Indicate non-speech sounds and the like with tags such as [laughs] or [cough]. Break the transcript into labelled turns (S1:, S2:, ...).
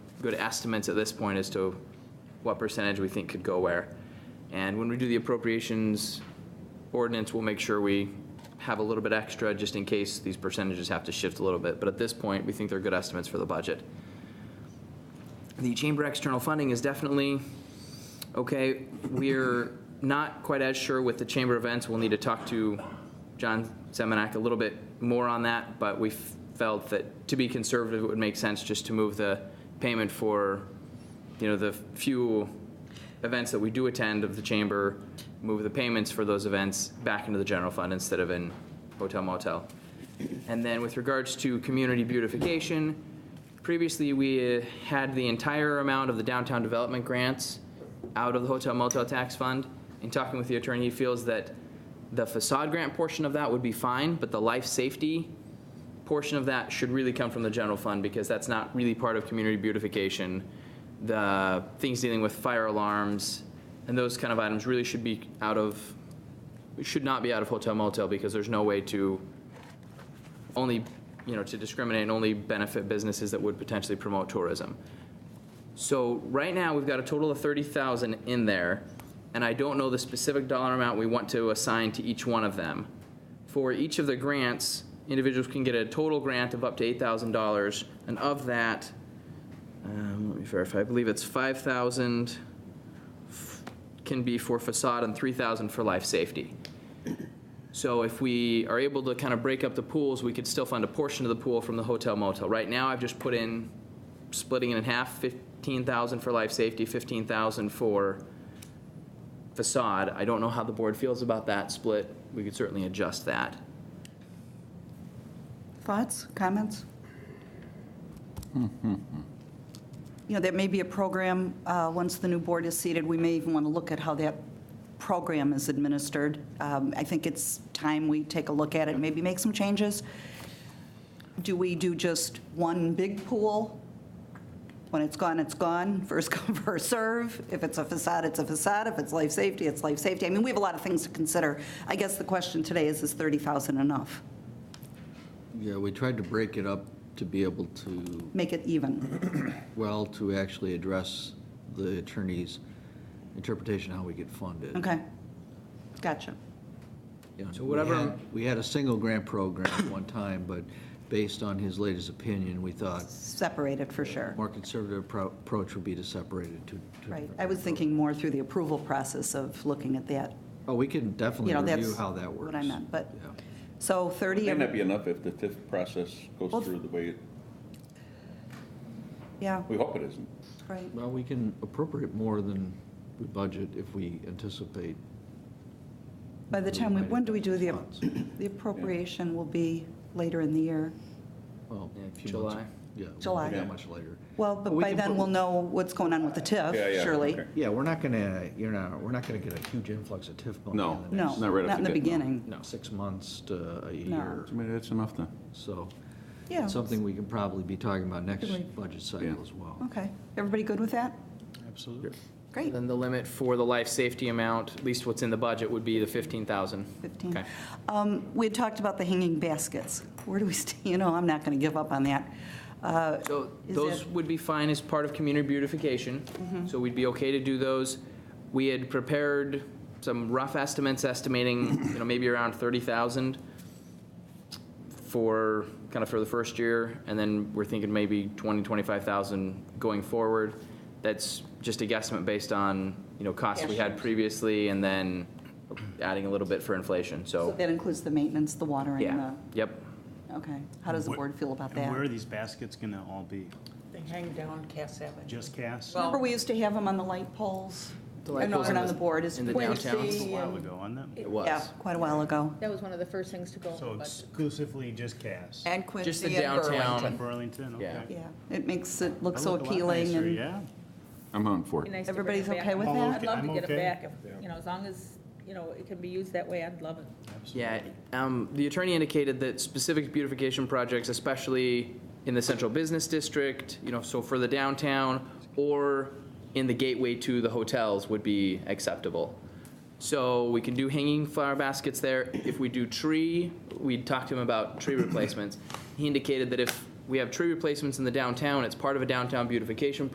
S1: good estimates at this point as to what percentage we think could go where. And when we do the appropriations ordinance, we'll make sure we have a little bit extra just in case these percentages have to shift a little bit. But at this point, we think they're good estimates for the budget. The chamber external funding is definitely, okay, we're not quite as sure with the chamber events. We'll need to talk to John Semenak a little bit more on that, but we f- felt that to be conservative, it would make sense just to move the payment for, you know, the few events that we do attend of the chamber, move the payments for those events back into the general fund instead of in hotel motel. And then with regards to community beautification, previously we uh, had the entire amount of the downtown development grants out of the hotel motel tax fund. In talking with the attorney, he feels that the facade grant portion of that would be fine, but the life safety portion of that should really come from the general fund because that's not really part of community beautification. The things dealing with fire alarms and those kind of items really should be out of, should not be out of hotel motel because there's no way to only, you know, to discriminate and only benefit businesses that would potentially promote tourism. So right now, we've got a total of 30,000 in there, and I don't know the specific dollar amount we want to assign to each one of them. For each of the grants, individuals can get a total grant of up to $8,000, and of that, um, let me verify, I believe it's 5,000 f- can be for facade and 3,000 for life safety. So if we are able to kind of break up the pools, we could still fund a portion of the pool from the hotel motel. Right now, I've just put in, splitting it in half, 15,000 for life safety, 15,000 for facade. I don't know how the board feels about that split. We could certainly adjust that.
S2: Thoughts, comments? You know, that may be a program, uh, once the new board is seated, we may even want to look at how that program is administered. Um, I think it's time we take a look at it, maybe make some changes. Do we do just one big pool? When it's gone, it's gone, [laughs] first come, first serve. If it's a facade, it's a facade, if it's life safety, it's life safety. I mean, we have a lot of things to consider. I guess the question today is, is 30,000 enough?
S3: Yeah, we tried to break it up to be able to,
S2: Make it even.
S3: well, to actually address the attorney's interpretation of how we get funded.
S2: Okay. Gotcha.
S3: You know,
S1: So whatever-
S3: we had- We had a single grant program at one time, but based on his latest opinion, we thought
S2: Separated for sure.
S3: a more conservative appro- approach would be to separate it to.
S2: Right. I was thinking more through the approval process of looking at that.
S3: Oh, we can definitely
S2: You know,
S3: review
S2: that's
S3: how that works.
S2: what I meant, but-
S3: Yeah.
S2: So
S4: It
S2: 30,
S4: may not be enough if the TIF process
S2: Well-
S4: goes through the way, it-
S2: yeah,
S4: we hope it isn't.
S2: right.
S3: Well, we can appropriate more than we budget if we anticipate.
S2: By the time, we when do we do the,
S3: Funds.
S2: the appropriation will be later in the year.
S3: Well,
S1: Yeah,
S3: a few months-
S1: July.
S3: Yeah. it won't be
S2: July.
S3: That much later.
S2: Well, but
S3: We
S2: by
S3: can
S2: then
S3: put-
S2: we'll know what's going on with the
S4: Yeah,
S2: TIF,
S4: yeah,
S2: Oh, surely.
S4: okay.
S3: Yeah, we're not gonna, you know, we're not gonna get a huge influx of TIF money
S4: No.
S3: in the
S2: No,
S3: next
S4: Not right off
S2: not in
S4: the
S2: the
S4: get, no.
S2: beginning.
S1: No.
S3: six months to a year,
S4: Maybe that's enough then.
S3: so.
S2: Yeah.
S3: it's Something we can probably be talking about next
S2: Good way.
S3: budget cycle
S4: Yeah.
S3: as well.
S2: Okay. Everybody good with that?
S3: Absolutely.
S2: Great.
S1: Then the limit for the life safety amount, at least what's in the budget, would be the 15,000.
S2: 15.
S1: Okay.
S2: Um, We had talked about the hanging baskets. Where do we, stand? you know, I'm not going to give up on that. Uh,
S1: So
S2: Is
S1: those
S2: it- Mm-hmm.
S1: would be fine as part of community beautification, so we'd be okay to do those. We had prepared some rough estimates estimating, you know, maybe around 30,000 for, kind of for the first year, and then we're thinking maybe 20, 25,000 going forward. That's just a guesstimate based on, you know, costs we had
S2: Cash.
S1: previously, and then adding a little bit for inflation,
S2: So
S1: so,
S2: that includes the maintenance, the water, and
S1: yeah,
S2: the
S1: yep.
S2: Okay, how does the board feel about
S5: And where are
S2: that?
S5: these baskets going to all be?
S6: They hang down Cass Avenue.
S5: Just cast?
S2: Remember, we used to have them on the light poles?
S1: The light
S2: And over
S1: poles in
S2: on
S1: the-
S2: the board is.
S1: in the
S2: Yeah,
S6: When
S1: downtown.
S6: the,
S5: A while
S6: um,
S5: ago, on them?
S1: It was.
S2: Quite a while ago.
S7: That was one of the first things to go.
S5: So
S7: but-
S5: exclusively just cast?
S6: And
S1: Just the
S6: Quincy and
S1: downtown.
S7: Burlington.
S5: Burlington, okay.
S1: Yeah.
S2: Yeah, it makes it look
S5: That
S2: so
S5: look a lot
S2: appealing
S5: nicer,
S2: and,
S5: Yeah,
S4: I'm on for
S7: Be
S4: it.
S7: nice to bring
S2: Everybody's
S7: it back.
S2: okay with Oh, that?
S7: I'd love
S5: okay,
S7: to
S5: I'm
S7: get
S5: okay.
S7: it back, if, you know, as long as, you know, it can be used that way, I'd love it.
S1: Yeah, um, the attorney indicated that specific beautification projects, especially in the central business district, you know, so for the downtown or in the gateway to the hotels would be acceptable. So we can do hanging flower baskets there. If we do tree, we talked to him about tree replacements. He indicated that if we have tree replacements in the downtown, it's part of a downtown beautification